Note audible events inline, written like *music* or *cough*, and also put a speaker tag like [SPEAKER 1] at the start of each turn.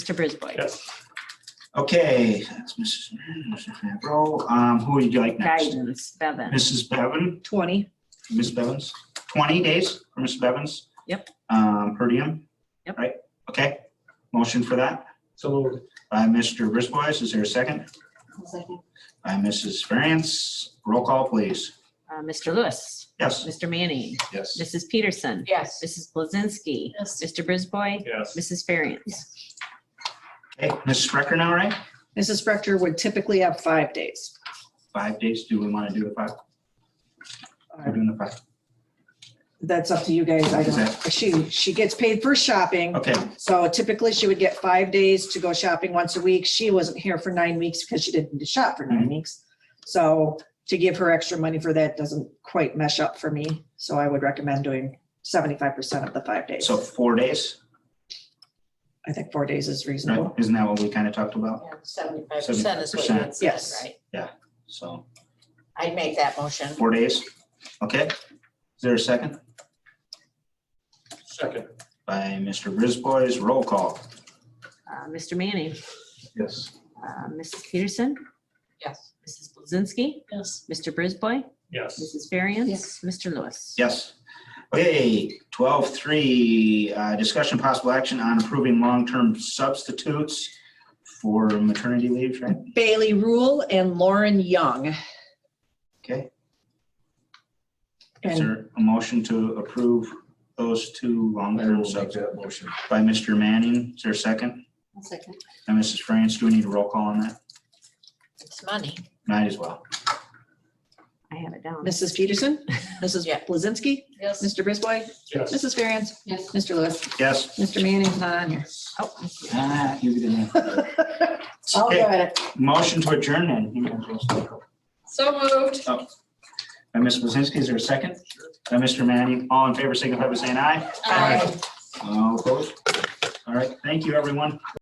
[SPEAKER 1] Mr. Brisboy.
[SPEAKER 2] Yes.
[SPEAKER 3] Okay, that's Mrs. Mrs. Van Roll. Um, Who would you like next?
[SPEAKER 1] Guidance, Bevan.
[SPEAKER 3] Mrs. Bevan,
[SPEAKER 1] 20.
[SPEAKER 3] Ms. Bevins, 20 days for Ms. Bevins?
[SPEAKER 1] Yep.
[SPEAKER 3] Um, Per diem?
[SPEAKER 1] Yep.
[SPEAKER 3] Right, okay. Motion for that
[SPEAKER 2] So moved.
[SPEAKER 3] by Mr. Brisbois. Is there a second? By Mrs. Variance. Roll call, please.
[SPEAKER 1] Uh, Mr. Lewis.
[SPEAKER 3] Yes.
[SPEAKER 1] Mr. Manning.
[SPEAKER 3] Yes.
[SPEAKER 1] Mrs. Peterson.
[SPEAKER 4] Yes.
[SPEAKER 1] Mrs. Blazinski.
[SPEAKER 4] Yes.
[SPEAKER 1] Mr. Brisboy.
[SPEAKER 2] Yes.
[SPEAKER 1] Mrs. Ferriens.
[SPEAKER 3] Okay, Mrs. Sprecher now, right?
[SPEAKER 5] Mrs. Spector would typically have five days.
[SPEAKER 3] Five days. Do we want to do the five? We're
[SPEAKER 5] Uh,
[SPEAKER 3] doing the five.
[SPEAKER 5] That's up to you guys. I don't, she, she gets paid for shopping.
[SPEAKER 3] Okay,
[SPEAKER 5] So typically she would get five days to go shopping once a week. She wasn't here for nine weeks because she didn't shop for
[SPEAKER 3] Mm-hmm.
[SPEAKER 5] nine weeks. So to give her extra money for that doesn't quite mesh up for me. So I would recommend doing seventy-five percent of the five days.
[SPEAKER 3] so four days,
[SPEAKER 5] I think four days is
[SPEAKER 3] right?
[SPEAKER 5] reasonable.
[SPEAKER 3] Isn't that what we kind of talked about?
[SPEAKER 4] Seventy-five percent is what you had said,
[SPEAKER 5] Yes.
[SPEAKER 4] right?
[SPEAKER 3] So
[SPEAKER 4] I'd make that motion.
[SPEAKER 3] four days. Okay. Is there a second?
[SPEAKER 2] Second.
[SPEAKER 3] by Mr. Brisboy's roll call.
[SPEAKER 1] Uh, Mr. Manning.
[SPEAKER 3] Yes.
[SPEAKER 1] Uh, Mrs. Peterson.
[SPEAKER 4] Yes.
[SPEAKER 1] Mrs. Blazinski.
[SPEAKER 4] Yes.
[SPEAKER 1] Mr. Brisboy.
[SPEAKER 2] Yes.
[SPEAKER 1] Mrs. Ferriens.
[SPEAKER 4] Yes.
[SPEAKER 1] Mr. Lewis.
[SPEAKER 3] Yes. Okay, twelve three, uh, discussion possible action on approving long-term substitutes for maternity leaves, right?
[SPEAKER 5] Bailey Rule and Lauren Young.
[SPEAKER 3] Okay. Is
[SPEAKER 5] And
[SPEAKER 3] there a motion to approve those two long-term substitutes?
[SPEAKER 2] motion.
[SPEAKER 3] By Mr. Manning, is there a second?
[SPEAKER 4] Second.
[SPEAKER 3] And Mrs. France, do we need a roll call on that?
[SPEAKER 4] It's money.
[SPEAKER 3] Might as well.
[SPEAKER 1] I have it down.
[SPEAKER 5] Mrs.
[SPEAKER 3] *laughs*
[SPEAKER 5] Peterson, Mrs.
[SPEAKER 4] Yeah.
[SPEAKER 5] Blazinski,
[SPEAKER 4] Yes.
[SPEAKER 5] Mr. Brisboy,
[SPEAKER 2] Yes.
[SPEAKER 5] Mrs. Ferriens,
[SPEAKER 4] Yes.
[SPEAKER 5] Mr. Lewis,
[SPEAKER 3] Yes.
[SPEAKER 5] Mr. Manning's not on here.
[SPEAKER 1] Oh,
[SPEAKER 3] Ah, you didn't.
[SPEAKER 5] I'll go
[SPEAKER 3] Okay,
[SPEAKER 5] at it.
[SPEAKER 3] Motion to adjourn then. You might as well stay.
[SPEAKER 4] So moved.
[SPEAKER 3] By Ms. Blazinski, is there a second? By Mr. Manning, all in favor, signify by saying aye.
[SPEAKER 4] Aye.
[SPEAKER 3] All opposed? All right, thank you, everyone.